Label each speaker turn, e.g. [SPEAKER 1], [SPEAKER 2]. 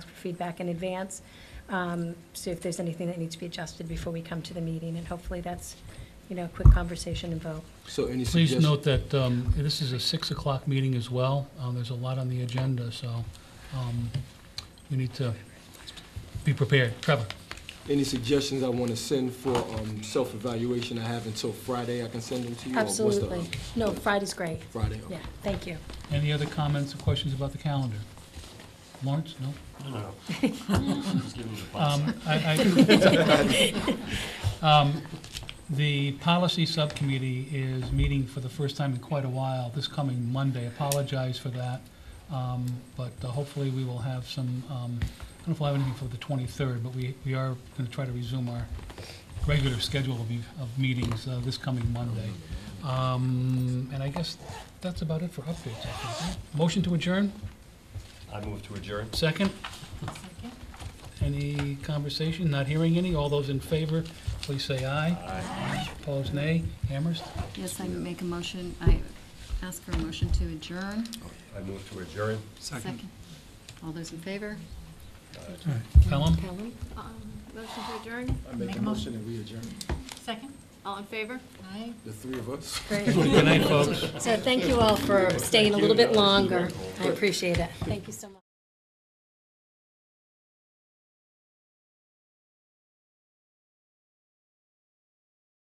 [SPEAKER 1] feedback in advance, um, see if there's anything that needs to be adjusted before we come to the meeting, and hopefully that's, you know, a quick conversation and vote.
[SPEAKER 2] So any
[SPEAKER 3] Please
[SPEAKER 2] suggestions?
[SPEAKER 3] note that um, this is a 6 o'clock meeting as well. Uh, There's a lot on the agenda, so um, we need to be prepared. Trevor?
[SPEAKER 2] Any suggestions I want to send for um, self-evaluation I have until Friday, I can send them to you? or what's the,
[SPEAKER 1] Absolutely.
[SPEAKER 2] um,
[SPEAKER 1] No, Friday's great.
[SPEAKER 2] Friday, okay.
[SPEAKER 1] Yeah, thank you.
[SPEAKER 3] Any other comments or questions about the calendar? Lawrence, no?
[SPEAKER 4] No, just give me the bus.
[SPEAKER 3] Um, I- I- Um, The policy subcommittee is meeting for the first time in quite a while, this coming Monday. Apologize for that. Um, But uh, hopefully, we will have some, um, I don't know if we'll have anything for the 23rd, but we, we are going to try to resume our regular schedule of, of meetings uh, this coming Monday. Um, And I guess that's about it for updates, I think. Motion to adjourn?
[SPEAKER 4] I move to adjourn.
[SPEAKER 3] Second? Any conversation? Not hearing any. All those in favor, please say aye. Aye. Opposed, nay. Hammers?
[SPEAKER 5] Yes, I make a motion, I ask for a motion to adjourn.
[SPEAKER 4] I move to adjourn.
[SPEAKER 5] Second. All those in favor?
[SPEAKER 3] Pelham?
[SPEAKER 5] Pelham?
[SPEAKER 6] Motion to adjourn?
[SPEAKER 2] I make a motion and we adjourn,
[SPEAKER 6] Second. All in favor? Aye.
[SPEAKER 2] the three of us.
[SPEAKER 1] Great.
[SPEAKER 3] Good night, folks.
[SPEAKER 1] So thank you all for staying a little bit longer. I appreciate it. Thank you so much.